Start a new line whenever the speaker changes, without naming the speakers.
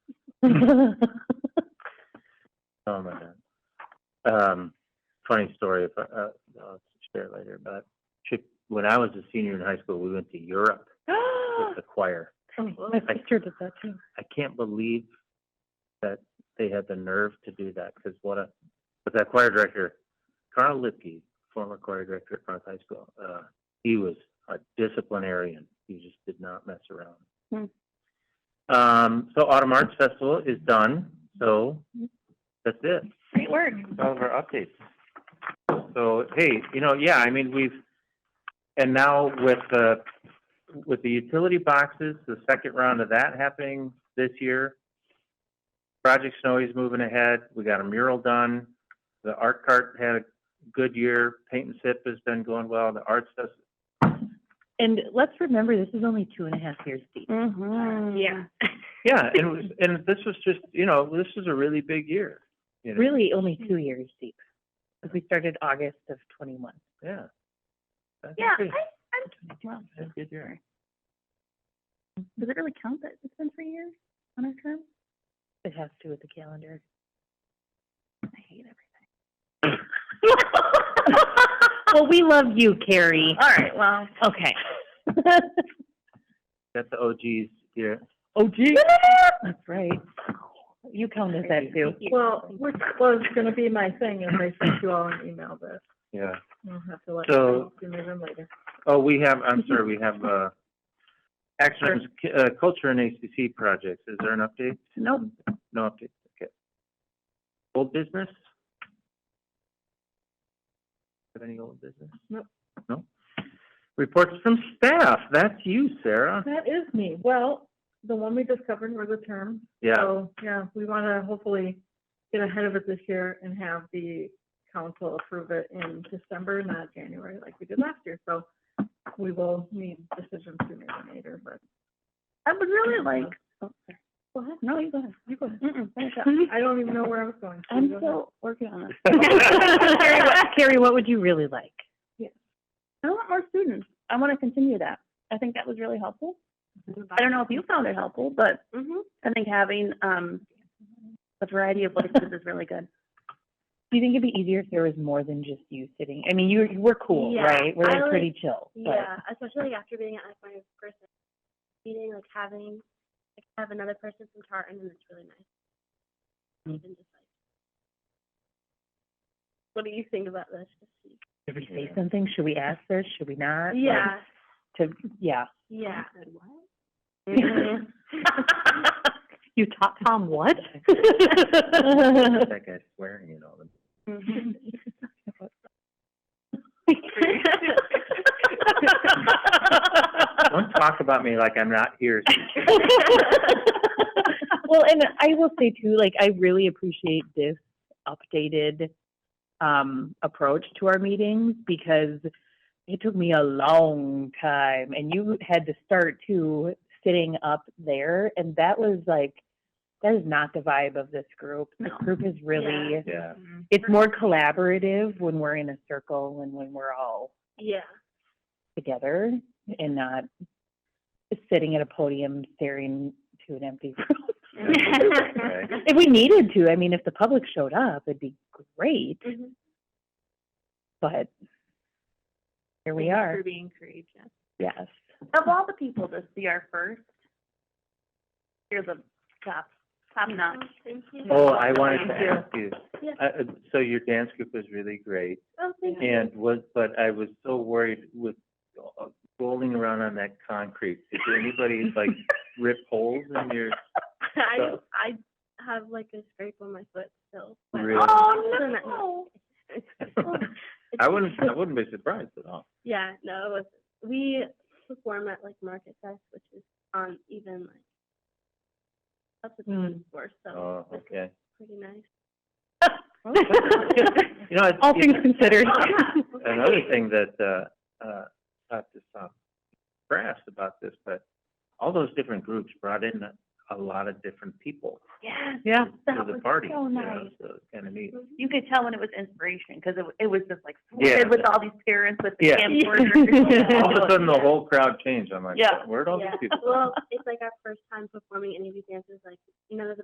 Oh my god. Um, funny story. If I, uh, I'll share it later, but she, when I was a senior in high school, we went to Europe with the choir.
My sister did that too.
I can't believe that they had the nerve to do that because what a, but that choir director, Carl Lipke, former choir director at North High School, uh, he was a disciplinarian. He just did not mess around. Um, so Autumn Arts Festival is done. So that's it.
Great work.
all of our updates. So, hey, you know, yeah, I mean, we've, and now with the, with the utility boxes, the second round of that happening this year. Project Snowy's moving ahead, we got a mural done, the art cart had a good year, paint and sip has been going well, the arts does,
And let's remember, this is only two and a half years deep.
Mm.
Yeah.
yeah, and it was, and this was just, you know, this is a really big year. you know?
Really, only two years deep. Because we started August of twenty-one.
Yeah. That's
Yeah, I,
pretty-
I'm,
Wow.
that's a good year.
Does it really count that it's been three years on our term? It has to with the calendar. I hate everything. Well, we love you, Carrie.
all right, well,
Okay.
Got the OGs here.
Oh, gee. That's right. You count as that too.
Well, which was gonna be my thing, and I sent you all an email, but
Yeah.
I'll have to let you
So-
know sooner than later.
Oh, we have, I'm sorry, we have, uh, action items, c- uh, culture and ACC projects. Is there an update?
Nope.
No update, okay. Old business? Have any old business?
Nope.
No? Reports from staff. That's you, Sarah.
That is me. Well, the one we just covered were the terms.
Yeah,
So, Oh, yeah, we wanna hopefully get ahead of it this year and have the council approve it in December, not January like we did last year. So we will need decisions sooner than later, but I would really like,
oh,
Go ahead. No, you go ahead. You go ahead. Finish up.
I don't even know where I was going. so
I'm
go ahead.
still working on this.
Carrie, what, Carrie, what would you really like?
I want more students. I want to continue that. I think that was really helpful. I don't know if you found it helpful, but
Mm-hmm.
I think having, um, a variety of voices is really good.
Do you think it'd be easier if there was more than just you sitting? I mean, you we're cool,
Yeah,
right? We're
I
like
like-
pretty chill. but-
Yeah, especially after being at like my first meeting, like having like have another person from Tartan, and it's really nice.
Mm.
Even just like, what do you think about this?
Should we say something? Should we ask this? Should we not? Like,
Yeah,
To yeah.
yeah.
Mm-hmm. you taught Tom what?
that guy's swearing and all.
Mm-hmm.
Don't talk about me like I'm not here.
well, and I will say too, like I really appreciate this updated um, approach to our meetings because it took me a long time, and you had to start too sitting up there, and that was like that is not the vibe of this group. This
No.
group is really
Yeah,
it's more collaborative when we're in a circle and when we're all
Yeah,
together and not sitting at a podium staring to an empty room.
right.
if we needed to, I mean, if the public showed up, it'd be great,
Mhm.
but here we are.
being courageous.
Yes.
Of all the people to see our first, you're the top, top notch.
Thank you.
Oh, I wanted to
Thank you.
ask you.
Yeah.
I- uh, So your dance group was really great.
Oh, thank
Mm-hmm.
you.
And was, but I was so worried with uh, rolling around on that concrete. Did anybody like rip holes in your?
I
So-
I have like a scrape on my foot still. but-
Really?
Oh,
I wouldn't, I wouldn't be surprised at all.
Yeah, no, it was, we perform at like Market Fest, which is on even like up at the
Mm.
mm. store, so
Oh, okay.
it's pretty nice.
You know, it's-
All things considered.
another thing that, uh, uh, not to sound crass about this, but all those different groups brought in a, a lot of different people
yeah.
yeah.
to
That
the
was
party.
so
you know,
nice.
So it's kind of neat.
You could tell when it was inspiration because it, it was just like
Yeah.
flooded with all these parents with the
Yeah.
camcorders.
Yeah.
All of a sudden, the whole crowd changed. I'm like,
Yeah.
where'd all these
yeah.
people?
Well, it's like our first time performing any of these dances. Like, you know, there's a